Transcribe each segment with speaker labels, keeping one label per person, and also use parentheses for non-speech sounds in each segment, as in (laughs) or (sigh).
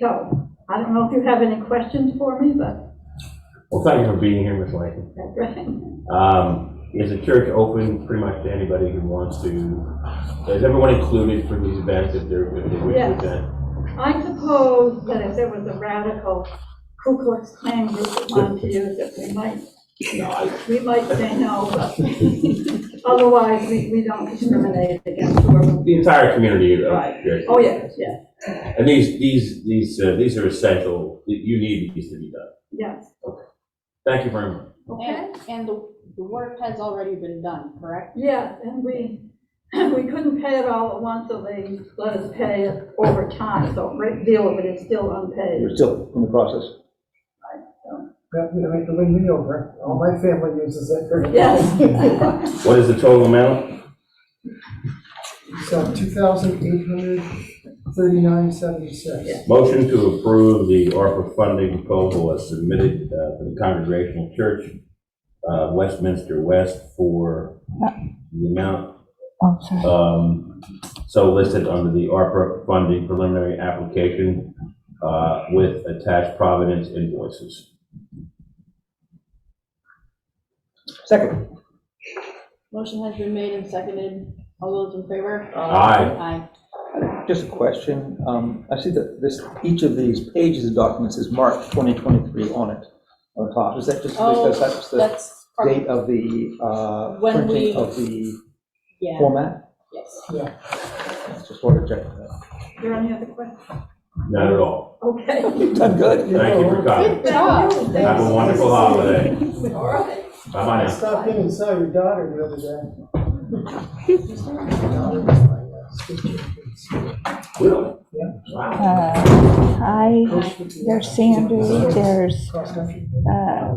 Speaker 1: So, I don't know if you have any questions for me, but
Speaker 2: Well, thank you for being here, Ms. Lane.
Speaker 1: that's right.
Speaker 2: Um, Is the church open pretty much to anybody who wants to? Is everyone included for these events if they're, if they wish to
Speaker 1: Yes.
Speaker 2: attend?
Speaker 1: I suppose that if there was a radical Ku Klux Klan group that wanted to use it, we might,
Speaker 2: No, I-
Speaker 1: we might say no, but (laughs) otherwise, we, we don't discriminate against whoever.
Speaker 2: The entire community of
Speaker 1: Right.
Speaker 2: churches.
Speaker 1: Oh, yes, yes,
Speaker 2: And these, these, these, uh, these are essential, you need these to be done.
Speaker 1: yes,
Speaker 2: Thank you very much.
Speaker 1: okay?
Speaker 3: And, and the, the work has already been done, correct?
Speaker 1: Yes, and we, (clears throat) we couldn't pay it all at once, so they let us pay it over time, so a great deal of it is still unpaid.
Speaker 4: You're still in the process.
Speaker 5: That would make the win me over. All my family uses it.
Speaker 1: Yes.
Speaker 2: What is the total amount?
Speaker 5: (laughs) So two thousand eight hundred thirty-nine seventy-six.
Speaker 2: Motion to approve the ARPA funding proposal as submitted uh, for the Congregational Church, uh, Westminster West for the amount
Speaker 6: Oh, sorry.
Speaker 2: um, so listed under the ARPA funding preliminary application uh, with attached Providence invoices.
Speaker 4: Second,
Speaker 3: Motion has been made and seconded. All those in favor?
Speaker 2: Aye.
Speaker 3: Aye.
Speaker 4: just a question. Um, I see that this, each of these pages of documents is marked 2023 on it, on top. Is that just
Speaker 3: Oh,
Speaker 4: because that's the
Speaker 3: That's, part-
Speaker 4: date of the uh,
Speaker 3: When we-
Speaker 4: printing of the
Speaker 3: yeah,
Speaker 4: format?
Speaker 3: yes.
Speaker 4: Just wanted to check that.
Speaker 1: There any other questions?
Speaker 2: Not at all.
Speaker 1: Okay.
Speaker 4: You've done good.
Speaker 2: Thank you for coming.
Speaker 3: Good job.
Speaker 2: Have a wonderful holiday.
Speaker 1: All right.
Speaker 2: Bye-bye
Speaker 5: I
Speaker 2: now.
Speaker 5: stopped in and saw your daughter the other day. Your daughter was my, uh,
Speaker 2: Will?
Speaker 5: Yeah.
Speaker 2: Wow.
Speaker 6: Uh, Hi,
Speaker 5: sister.
Speaker 6: there's Sandy, there's
Speaker 5: Cross country.
Speaker 6: uh,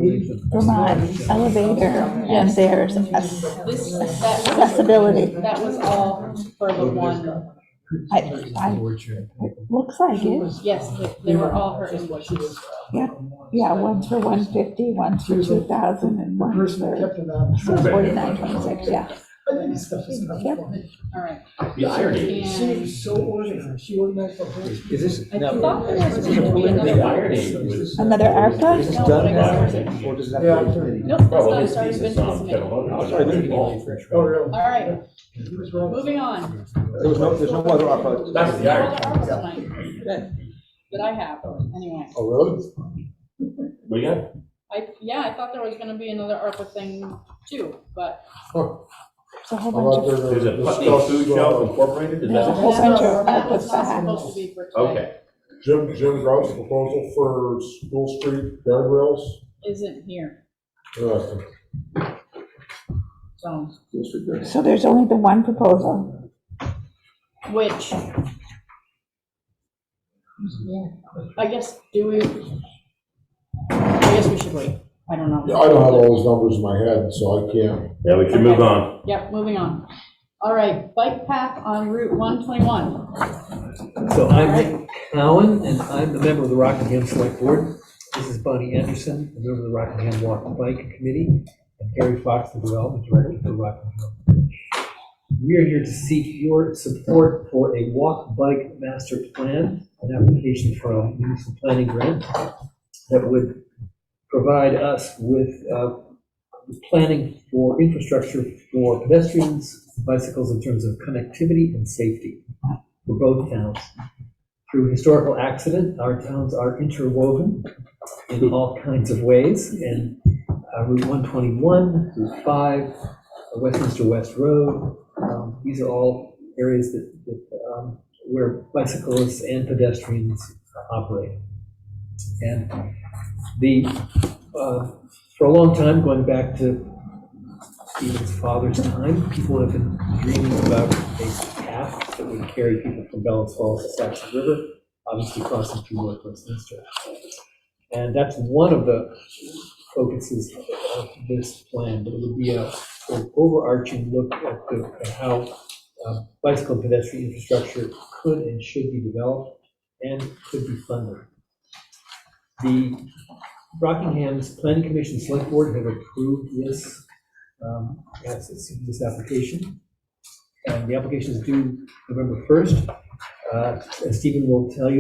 Speaker 6: Vermont Elevator, and there's us.
Speaker 3: This, that was.
Speaker 6: Accessibility.
Speaker 3: That was all for the one,
Speaker 6: I- It looks like it.
Speaker 3: yes, they- they were all her invoices.
Speaker 6: Yeah, one's for 150, one's for 2,000, and
Speaker 5: The
Speaker 6: one's
Speaker 5: person that
Speaker 6: for
Speaker 5: kept it on.
Speaker 6: 4926, yeah.
Speaker 5: I think this stuff is kind of funny.
Speaker 3: All right.
Speaker 2: The irony.
Speaker 5: She
Speaker 3: And
Speaker 5: was so organized. She organized the whole.
Speaker 4: Is this,
Speaker 3: I
Speaker 4: now,
Speaker 3: thought there was
Speaker 4: is
Speaker 3: gonna be
Speaker 2: The
Speaker 3: another.
Speaker 2: irony was.
Speaker 6: Another ARPA?
Speaker 4: this
Speaker 3: No,
Speaker 4: done
Speaker 3: but I guess
Speaker 4: now, or does that?
Speaker 5: Yeah.
Speaker 3: Nope, that's
Speaker 2: Well,
Speaker 3: not,
Speaker 2: his
Speaker 3: it's already
Speaker 2: piece
Speaker 3: been
Speaker 2: is on
Speaker 3: submitted.
Speaker 2: General Motors.
Speaker 4: Sorry, this is-
Speaker 5: Oh, really?
Speaker 3: All right,
Speaker 5: She was wrong.
Speaker 3: moving on.
Speaker 4: There was no, there's no other ARPA.
Speaker 2: That's the
Speaker 3: All
Speaker 2: irony.
Speaker 3: the ARPA tonight
Speaker 4: Okay.
Speaker 3: That I have, anyway.
Speaker 4: Oh, really?
Speaker 2: We got,
Speaker 3: I, yeah, I thought there was gonna be another ARPA thing too, but
Speaker 6: It's a whole bunch
Speaker 7: Uh,
Speaker 6: of,
Speaker 2: there's a Putney Food Shelf Incorporated, is
Speaker 6: there's a
Speaker 2: that?
Speaker 6: whole bunch of
Speaker 3: that was not
Speaker 6: ARPA's that happen.
Speaker 3: supposed to be for tonight,
Speaker 2: Okay,
Speaker 7: Jim, Jim Grout's proposal for School Street guardrails. Uh,
Speaker 3: isn't here,
Speaker 7: Interesting.
Speaker 3: so,
Speaker 6: So there's only the one proposal.
Speaker 3: which. Yeah, I guess, do we? I guess we should wait, I don't know.
Speaker 7: Yeah, I don't have all those numbers in my head, so I can't.
Speaker 2: yeah, we should move on.
Speaker 3: Yep, moving on. All right, bike path on Route one twenty-one,
Speaker 8: So I'm Nick Cowan, and I'm a member of the Rockingham Select Board. This is Bonnie Anderson, a member of the Rockingham Walk and Bike Committee, and Gary Fox, the Development Director for Rockingham. We are here to seek your support for a walk-bike master plan, an application for a municipal planning grant that would provide us with uh, planning for infrastructure for pedestrians, bicycles in terms of connectivity and safety for both towns. Through historical accident, our towns are interwoven in all kinds of ways, and uh, Route 121, Route 5, uh, Westminster West Road, um, these are all areas that, that, um, where bicyclists and pedestrians operate. And the, uh, for a long time, going back to Stephen's father's time, people have been dreaming about a path that would carry people from Bellas Falls to Saxon River, obviously crossing through North Westminster. And that's one of the focuses of this plan, but it would be a an overarching look at the, at how uh, bicycle and pedestrian infrastructure could and should be developed and could be funded. The Rockingham's Planning Commission Select Board have approved this um, yes, it's in this application. And the application is due November 1st. Uh, As Stephen will tell you,